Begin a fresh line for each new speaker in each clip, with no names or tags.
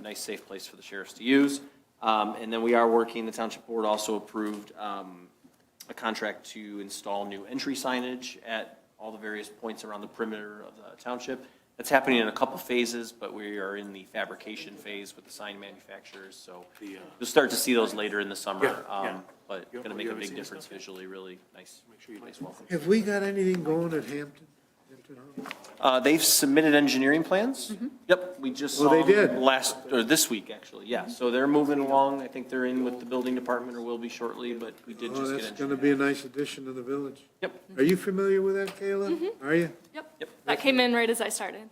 nice, safe place for the sheriffs to use. Um, And then we are working, the township board also approved um, a contract to install new entry signage at all the various points around the perimeter of the township. That's happening in a couple phases, but we are in the fabrication phase with the sign manufacturers, so
The, uh,
you'll start to see those later in the summer.
Yeah, yeah.
um, But
You-
gonna
you
make a
haven't
big
seen this
difference visually, really nice, nice welcome.
Have we got anything going at Hampton? Hampton Harbor?
Uh, they've submitted engineering plans. Yep, we just
Well,
saw
they
them
did.
last, or this week, actually, yeah. So they're moving along. I think they're in with the building department or will be shortly, but we did
Oh,
just get
that's
engineering.
gonna be a nice addition to the village.
Yep,
Are you familiar with that, Kayla? Are you?
yep.
Yep, that came in right as I started.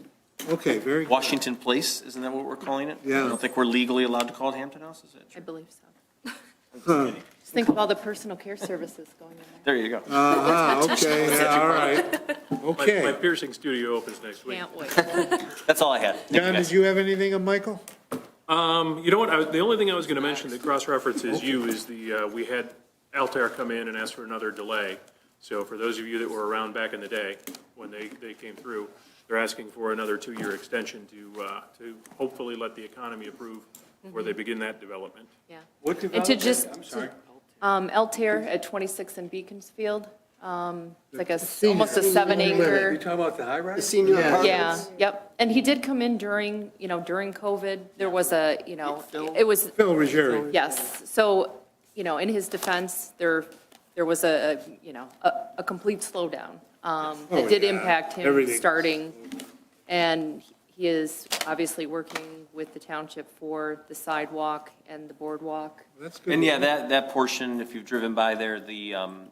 Okay, very good.
Washington Place, isn't that what we're calling it?
Yeah.
I don't think we're legally allowed to call it Hampton House, is it?
I
true?
believe so.
Huh.
Just think of all the personal care services going in
There
there.
you go.
Uh-huh, okay, yeah, all right.
My, my
Okay.
piercing studio opens next week.
Can't wait.
That's all I had. Thank you,
John,
guys.
did you have anything on Michael?
Um, you know what, I, was- the only thing I was gonna mention that cross-references you is the, uh, we had Altair come in and ask for another delay. So for those of you that were around back in the day, when they, they came through, they're asking for another two-year extension to, uh, to hopefully let the economy approve where they begin that development.
Yeah.
What
And to just, um, Altair at 26 and Beaconsfield, um, it's like a, s- almost a seven acre.
talking about the high rise?
Senior
Yeah,
apartments.
yep. And he did come in during, you know, during COVID, there was a, you know, it was,
Phil Ruggieri.
yes. So, you know, in his defense, there, there was a, a, you know, a, a complete slowdown. Um,
Oh,
It did
yeah.
impact him
Everything.
starting, and he is obviously working with the township for the sidewalk and the boardwalk.
That's good.
And yeah, that, that portion, if you've driven by there, the, um,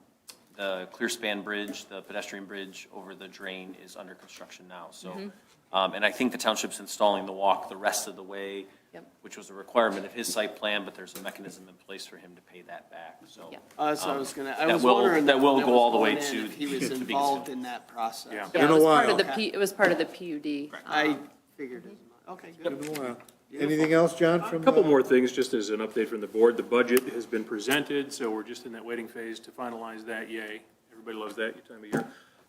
the clear span bridge, the pedestrian bridge over the drain is under construction now, so. Um, and I think the township's installing the walk the rest of the way,
Yep.
which was a requirement of his site plan, but there's a mechanism in place for him to pay that back, so.
Yeah.
Uh, so I was gonna, I
That
was
will-
wondering.
that will
if
go all the
was
way
going in,
to
If he
the
was
biggest
involved
hill.
in that process.
Yeah.
Yeah,
Been a
it was part
while.
of the, P- Um, it was part of the PUD.
I figured as much. Okay, good.
Been a while. Anything else, John,
A
from?
couple
uh,
more things, just as an update from the board. The budget has been presented, so we're just in that waiting phase to finalize that. Yay. Everybody loves that time of year.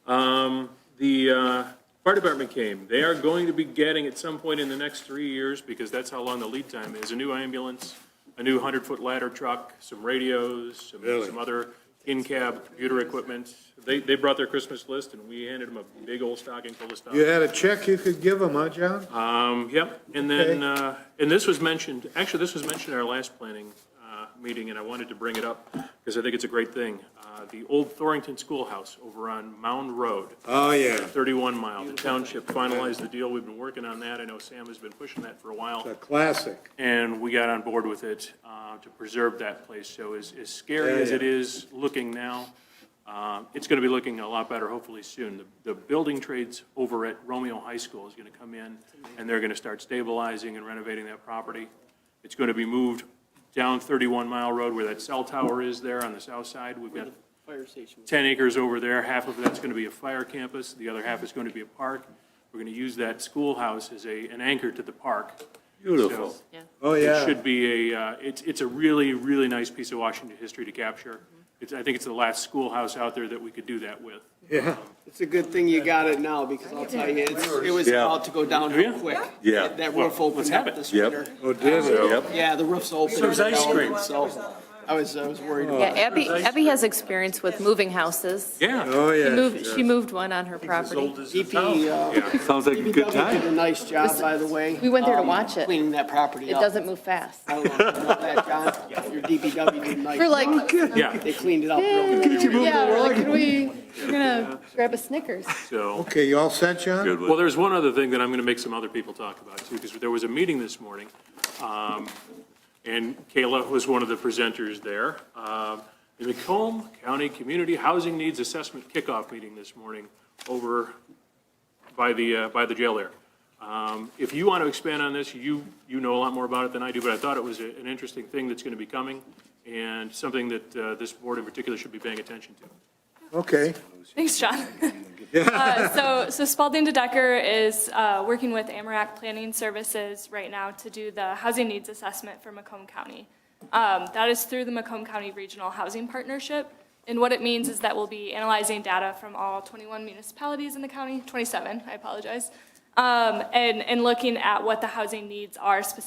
Um, The uh, fire department came. They are going to be getting at some point in the next three years, because that's how long the lead time is, a new ambulance, a new 100-foot ladder truck, some radios, some
Really?
some other in-cab computer equipment. They, they brought their Christmas list, and we handed them a big old stocking full of stuff.
You had a check you could give them, huh, John?
Um, yep, and then, uh, and this was mentioned, actually, this was mentioned at our last planning, uh, meeting, and I wanted to bring it up, because I think it's a great thing. Uh, the old Thorington Schoolhouse over on Mound Road,
Oh, yeah.
thirty-one mile, the township finalized the deal, we've been working on that, I know Sam has been pushing that for a while
A classic.
and we got on board with it uh, to preserve that place. So as, as scary as it is looking now, uh, it's going to be looking a lot better hopefully soon. The, the building trades over at Romeo High School is going to come in, and they're going to start stabilizing and renovating that property. It's going to be moved down 31 Mile Road where that cell tower is there on the south side. We've got
Fire station.
10 acres over there, half of that's going to be a fire campus, the other half is going to be a park. We're going to use that schoolhouse as a, an anchor to the park. Beautiful.
Oh,
It
yeah.
should be a, uh, it's, it's a really, really nice piece of Washington history to capture. It's, I think it's the last schoolhouse out there that we could do that with.
Yeah.
It's a good thing you got it now, because I'll tell you, it's, it was
Yeah.
about to go down real
Yeah.
quick.
Yeah.
That
let's
roof opened
have
up
it.
this
Yep.
winter.
Oh, did it?
Yeah, the roof's open.
Serves ice
It's open,
cream.
So, I was, I was worried about
Yeah, Abby, Abby has experience with moving houses.
Yeah.
Oh,
She
yeah.
moved, she moved one on her property.
DP, uh,
Sounds like a good
DPW did
time.
a nice job, by the way.
We went there to
um,
watch it.
Cleaning that property
It
up.
doesn't move fast.
I don't know if you know that, John. Your DPW did a nice
We're like,
job.
Yeah,
They cleaned it up real good.
yeah, we're like, can we, we're gonna grab a Snickers.
so,
Okay, you all set, John?
Good
well,
one.
there's one other thing that I'm going to make some other people talk about too, because there was a meeting this morning. um, And Kayla was one of the presenters there. Um, The Macomb County Community Housing Needs Assessment Kickoff Meeting this morning over by the, uh, by the jail there. Um, If you want to expand on this, you, you know a lot more about it than I do, but I thought it was a- an interesting thing that's going to be coming and something that uh, this board in particular should be paying attention to.
Okay.
Thanks, John. Uh, So, so Spalding DeDecker is uh, working with Amarak Planning Services right now to do the housing needs assessment for Macomb County. Um, That is through the Macomb County Regional Housing Partnership. And what it means is that we'll be analyzing data from all 21 municipalities in the county, 27, I apologize, um, and, and looking at what the housing needs are specifically